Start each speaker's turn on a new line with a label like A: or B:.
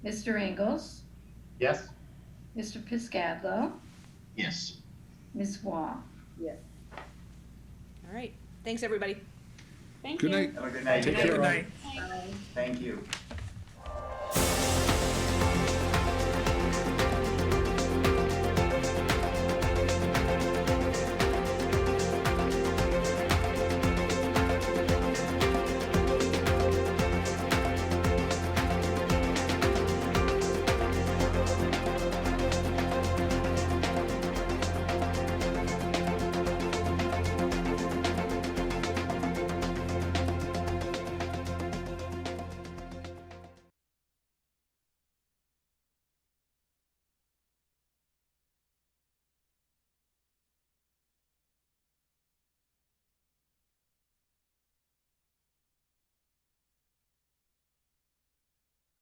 A: Mr. Ingles,
B: Yes?
A: Mr. Piscadlo,
B: Yes.
A: Ms. Wah.
C: All right. Thanks, everybody.
D: Thank you.
E: Good night.
B: Have a good
D: Take
B: night.
D: care. all.
F: Good night.
B: Thank you.